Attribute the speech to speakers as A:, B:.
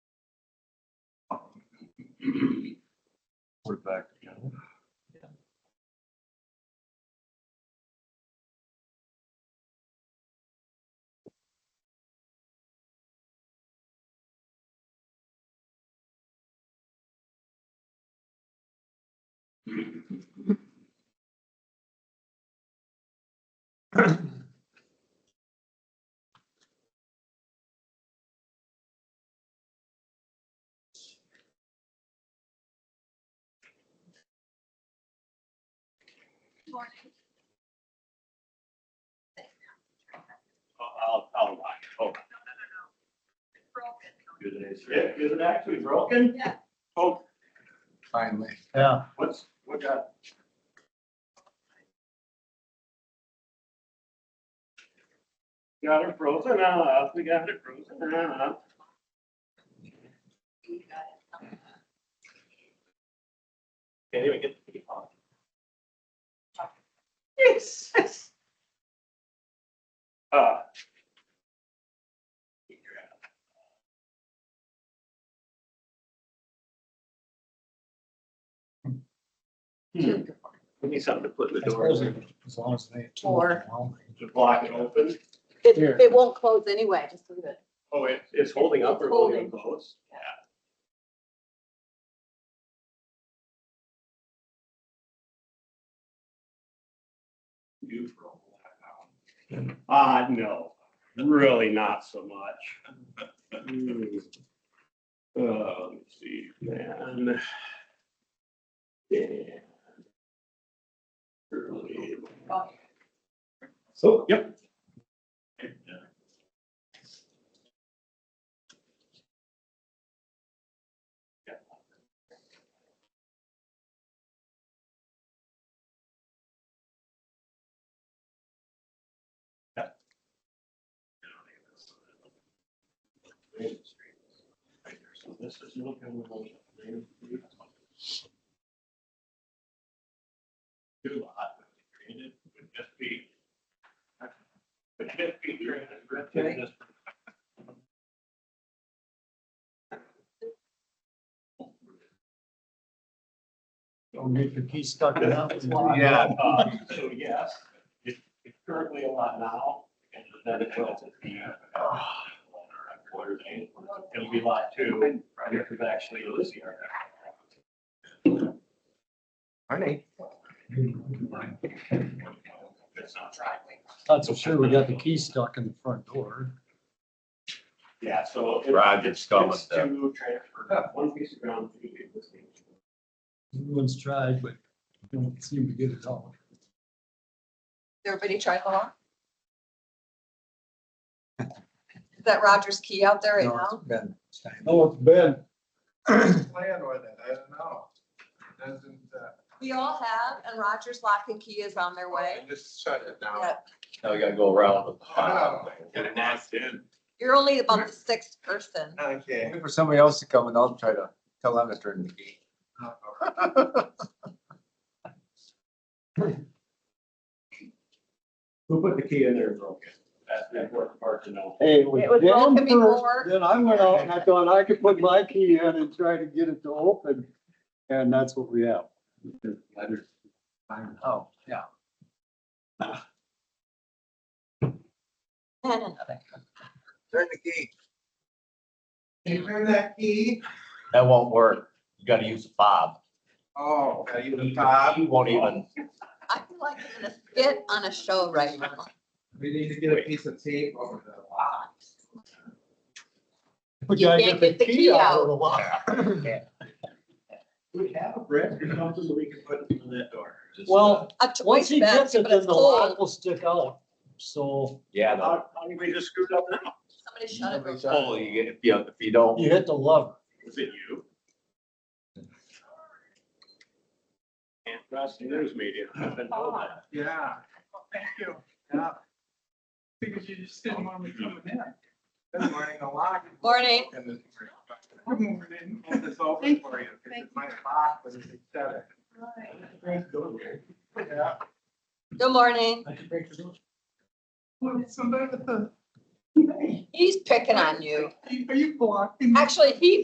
A: We're back together. I'll, I'll watch. Oh, good answer.
B: is it actually broken?
C: Yeah.
B: Oh,
D: Finally.
A: Yeah.
B: what's, what got? Got it frozen off, we got it frozen off. Can't even get the key on.
C: Jesus.
B: Uh. Hmm, we need something to put in the
D: As far
B: door
D: as
B: to
D: it- as long as they.
C: Or-
B: block it open.
C: It,
D: Here.
C: it won't close anyway, just leave it.
B: Oh, it, it's holding up or
C: It's
B: holding
C: holding.
B: close?
C: Yeah.
B: You for a while. Ah, no, really not so much. Hmm. Uh, let's see, man. Yeah. Early.
C: Oh.
B: So, yep. So this is. Two lot would be created, would just be. Would just be drained, ripped in this.
D: Don't get your key stuck in that one.
B: Yeah. uh, So yes, it- it's currently a lot now, and then it will be. uh, Quarter day, it'll be lot two, right here, because actually it is here.
D: Honey.
B: It's not driving.
D: Not so sure we got the key stuck in the front door.
B: Yeah, so. it-
A: Rod gets stung with
B: It's
A: that.
B: to transfer, one piece of ground to the existing.
D: Everyone's tried, but don't seem to get it all.
E: Everybody try along? Is that Roger's key out there right
D: No,
E: now?
D: it's been- No, it's been.
F: plan with it, I don't know. It Doesn't, uh,
E: We all have, and Roger's lock and key is on their way.
F: I just shut it down.
E: Yep.
A: Now we gotta go around with the
F: Oh,
A: file.
F: Get it locked in.
E: You're only about the sixth person.
F: Okay.
D: For somebody else to come and I'll try to tell them to turn the key.
B: Who put the key in there and broke it? That's the important part to know.
G: Hey, it was
E: It was
G: down
E: broken
G: first,
E: before.
G: then I went out and I thought I could put my key in and try to get it to open, and that's what we have.
D: Oh, yeah.
E: And another.
D: Turn the key.
F: You hear that key?
A: That won't work. You gotta use the fob.
F: Oh, are you the
A: He
F: top?
A: he won't even,
E: I feel like I'm gonna skit on a show right now.
F: We need to get a piece of tape over the lock.
D: We
E: You
D: gotta
E: can't get the key
D: of the lock.
B: We have a brick or something that we can put in that door.
D: Well,
E: A choice
D: once he
E: fence,
D: gets it,
E: but it's
D: then the lock
E: cold.
D: will stick out, so.
A: yeah, no.
B: How, how did we just screwed up now?
E: Somebody shut it. real quick.
A: Oh, you get, if you, if you don't,
D: You hit the lever.
B: Was it you? And Rusty News Media. I've been told that.
F: Yeah. Oh, Thank you. Yeah. Because you just didn't want me coming in. Good morning, the lock.
E: Morning.
F: And this- Good morning. Hold this open for you, 'cause it's my lock, but it's shut it. Yeah.
E: Good morning.
F: Well, somebody with the.
E: He's picking on you.
F: Are you blocking?
E: Actually, he